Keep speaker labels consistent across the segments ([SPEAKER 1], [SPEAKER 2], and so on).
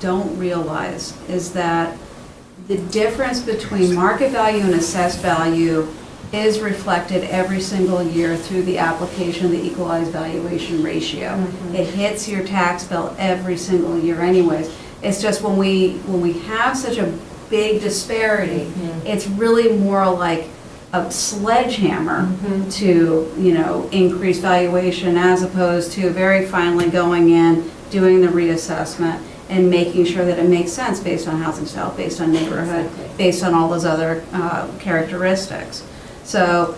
[SPEAKER 1] don't realize is that the difference between market value and assessed value is reflected every single year through the application of the equalized valuation ratio. It hits your tax bill every single year anyways. It's just when we, when we have such a big disparity, it's really more like a
[SPEAKER 2] Mm-hmm.
[SPEAKER 1] sledgehammer to, you know, increase valuation as opposed to very finely going in, doing the reassessment and making sure that it makes sense based on housing style, based on neighborhood,
[SPEAKER 2] Exactly.
[SPEAKER 1] based on all those other uh, characteristics. So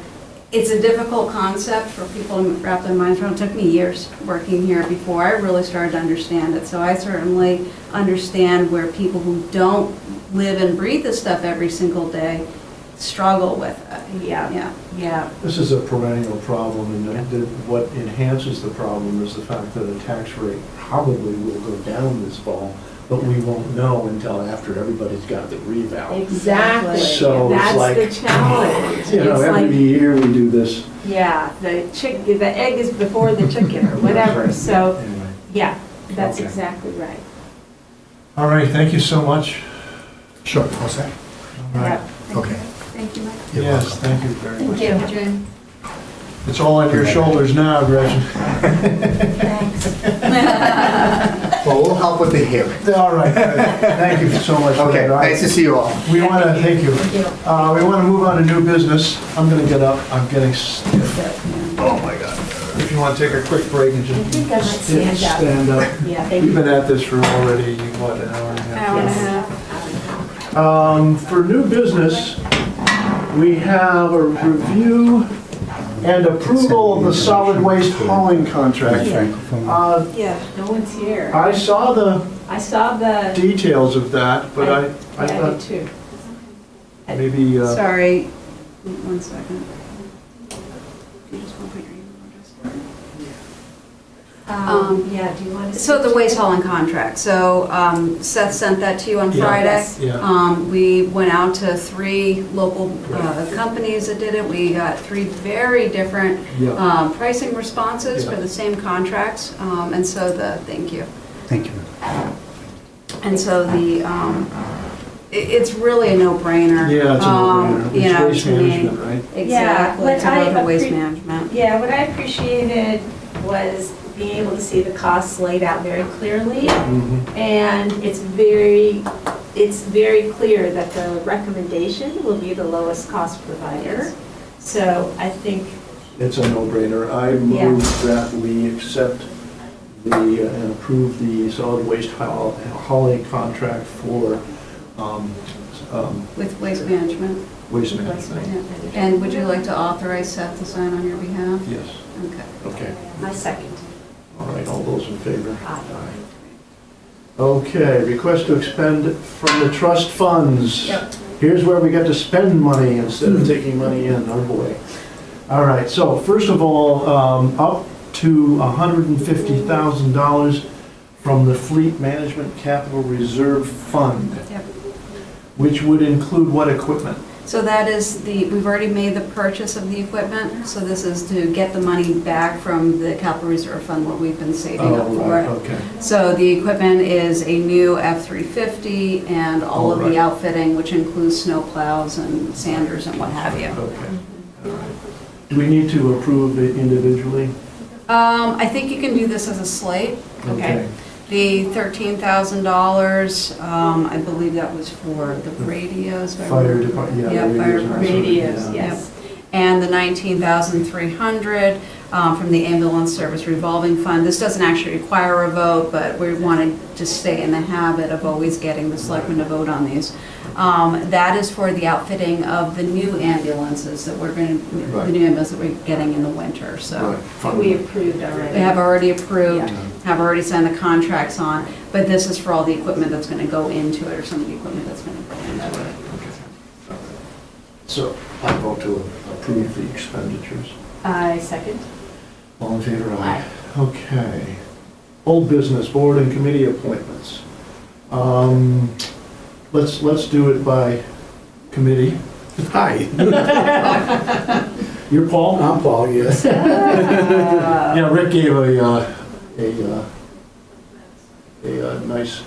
[SPEAKER 1] it's a difficult concept for people to wrap their minds around. It took me years working here before I really started to understand it. So I certainly understand where people who don't live and breathe this stuff every single day struggle with it.
[SPEAKER 2] Yeah,
[SPEAKER 1] Yeah.
[SPEAKER 2] yeah,
[SPEAKER 3] This is a perennial problem, and the- the- what enhances the problem is the fact that the tax rate probably will go down this fall, but we won't know until after everybody's got the revow.
[SPEAKER 2] exactly.
[SPEAKER 3] So it's like-
[SPEAKER 2] That's the challenge.
[SPEAKER 3] You know,
[SPEAKER 2] It's
[SPEAKER 3] every
[SPEAKER 2] like,
[SPEAKER 3] year we do this.
[SPEAKER 2] yeah, the chick, the egg is before the chicken or whatever, so,
[SPEAKER 3] Anyway.
[SPEAKER 2] yeah, that's
[SPEAKER 3] Okay.
[SPEAKER 2] exactly right.
[SPEAKER 4] All right, thank you so much.
[SPEAKER 5] Sure, all set.
[SPEAKER 4] All right.
[SPEAKER 2] Yeah.
[SPEAKER 5] Okay.
[SPEAKER 1] Thank you, Mike.
[SPEAKER 5] You're
[SPEAKER 4] Yes,
[SPEAKER 5] welcome.
[SPEAKER 4] thank you very much.
[SPEAKER 1] you, Jim.
[SPEAKER 4] It's all on your shoulders now, Gretchen.
[SPEAKER 5] Well, we'll help with the hearing.
[SPEAKER 4] All right, thank you so much for
[SPEAKER 5] Okay,
[SPEAKER 4] that.
[SPEAKER 5] nice to see you all.
[SPEAKER 4] We want to, thank you. Uh, We want to move on to new business. I'm going to get up, I'm getting stiff.
[SPEAKER 5] Oh, my God.
[SPEAKER 4] If you want to take a quick break and
[SPEAKER 2] I think I might
[SPEAKER 4] just
[SPEAKER 2] stand
[SPEAKER 4] stiff,
[SPEAKER 2] up.
[SPEAKER 4] stand up.
[SPEAKER 2] Yeah, thank
[SPEAKER 4] We've
[SPEAKER 2] you.
[SPEAKER 4] been at this for already, what, an hour and a half?
[SPEAKER 1] Hour and a half.
[SPEAKER 4] Um, For new business, we have a review and approval of the solid waste hauling contract. Uh,
[SPEAKER 2] Yeah, no one's here.
[SPEAKER 4] I saw the
[SPEAKER 2] I saw the,
[SPEAKER 4] details of that, but I, I
[SPEAKER 2] yeah, I did
[SPEAKER 4] thought
[SPEAKER 2] too.
[SPEAKER 4] maybe, uh,
[SPEAKER 1] Sorry, one second. You just want my green one, just-
[SPEAKER 2] Um, yeah, do you want to?
[SPEAKER 1] So the waste hauling contract, so um, Seth sent that to you on
[SPEAKER 4] Yeah.
[SPEAKER 1] Friday.
[SPEAKER 4] Yeah.
[SPEAKER 1] Um, We went out to three local uh, companies that did it. We got three very different
[SPEAKER 4] Yeah.
[SPEAKER 1] um, pricing responses for
[SPEAKER 4] Yeah.
[SPEAKER 1] the same contracts, Um, and so the, thank you.
[SPEAKER 5] Thank you.
[SPEAKER 1] Uh, And so the, um, i- it's really a no-brainer.
[SPEAKER 4] yeah, it's a
[SPEAKER 1] um,
[SPEAKER 4] no-brainer.
[SPEAKER 1] you know,
[SPEAKER 4] It's waste
[SPEAKER 1] to me.
[SPEAKER 4] management, right?
[SPEAKER 1] Exactly,
[SPEAKER 2] Yeah,
[SPEAKER 1] to
[SPEAKER 2] but I
[SPEAKER 1] go to waste
[SPEAKER 2] appre-
[SPEAKER 1] management.
[SPEAKER 2] Yeah, what I appreciated was being able to see the costs laid out very clearly.
[SPEAKER 3] Mm-hmm.
[SPEAKER 4] Mhm.
[SPEAKER 2] And it's very, it's very clear that the recommendation will be the lowest cost provider. So I think,
[SPEAKER 3] It's a no-brainer. I
[SPEAKER 2] Yeah.
[SPEAKER 3] move that we accept the, uh, and approve the solid waste haul- hauling contract for um, um,
[SPEAKER 1] With waste management.
[SPEAKER 3] waste
[SPEAKER 2] Waste
[SPEAKER 3] management.
[SPEAKER 2] management.
[SPEAKER 1] And would you like to authorize Seth to sign on your behalf?
[SPEAKER 3] Yes,
[SPEAKER 1] Okay.
[SPEAKER 3] okay.
[SPEAKER 2] my second.
[SPEAKER 3] All right, all those in favor?
[SPEAKER 2] Aye.
[SPEAKER 3] Okay, request to expend from the trust funds.
[SPEAKER 1] Yep.
[SPEAKER 3] Here's where we get to spend money instead of taking money in, oh boy. All right, so first of all, um, up to $150,000 from the Fleet Management Capital Reserve Fund,
[SPEAKER 1] Yep.
[SPEAKER 3] which would include what equipment?
[SPEAKER 1] So that is the, we've already made the purchase of the equipment, so this is to get the money back from the capital reserve fund, what we've been saving up
[SPEAKER 3] Oh, right,
[SPEAKER 1] for.
[SPEAKER 3] Okay,
[SPEAKER 1] So the equipment is a new F-350 and all of
[SPEAKER 3] All
[SPEAKER 1] the
[SPEAKER 3] right.
[SPEAKER 1] outfitting, which includes snow plows and sanders and what have you.
[SPEAKER 3] okay. All right. Do we need to approve it individually?
[SPEAKER 1] Um, I think you can do this as a slate.
[SPEAKER 2] Okay.
[SPEAKER 1] The $13,000, um, I believe that was for the radios. if I
[SPEAKER 3] Fire
[SPEAKER 1] remember
[SPEAKER 3] department, yeah.
[SPEAKER 1] Yeah,
[SPEAKER 3] radios
[SPEAKER 1] fire
[SPEAKER 3] and that sort of-
[SPEAKER 2] Radios,
[SPEAKER 3] yeah.
[SPEAKER 2] yes.
[SPEAKER 1] and the 19,300 um, from the ambulance service revolving fund. This doesn't actually require a vote, but we wanted to stay in the habit of always getting the selectmen to vote on these. Um, That is for the outfitting of the new ambulances that we're going to, the
[SPEAKER 3] Right.
[SPEAKER 1] new ambulance that we're getting in the winter, so.
[SPEAKER 3] Right.
[SPEAKER 2] We approved already.
[SPEAKER 1] They have already approved, have already signed the contracts on, but this is for all the equipment that's going to go into it, or some of the equipment that's going to go into it.
[SPEAKER 3] So I vote to approve the expenditures.
[SPEAKER 2] I second.
[SPEAKER 3] All in favor? Aye. Okay. Old business, board and committee appointments. Um, Let's, let's do it by committee.
[SPEAKER 6] Hi,
[SPEAKER 3] You're Paul?
[SPEAKER 6] I'm Paul, yes.
[SPEAKER 3] Yeah, Rick gave a, uh, a, uh, a uh, nice